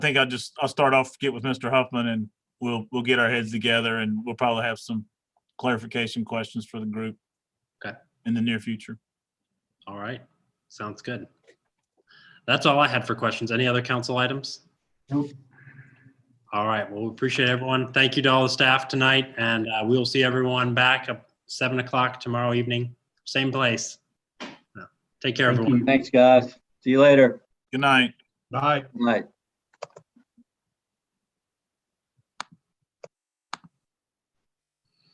think I'll just, I'll start off, get with Mr. Huffman and we'll, we'll get our heads together and we'll probably have some clarification questions for the group. Okay. In the near future. All right, sounds good. That's all I had for questions. Any other council items? Nope. All right, well, we appreciate everyone. Thank you to all the staff tonight, and uh, we'll see everyone back at seven o'clock tomorrow evening, same place. Take care, Thank everyone. you. Thanks, guys. See you later. Good night. Bye. Good Night.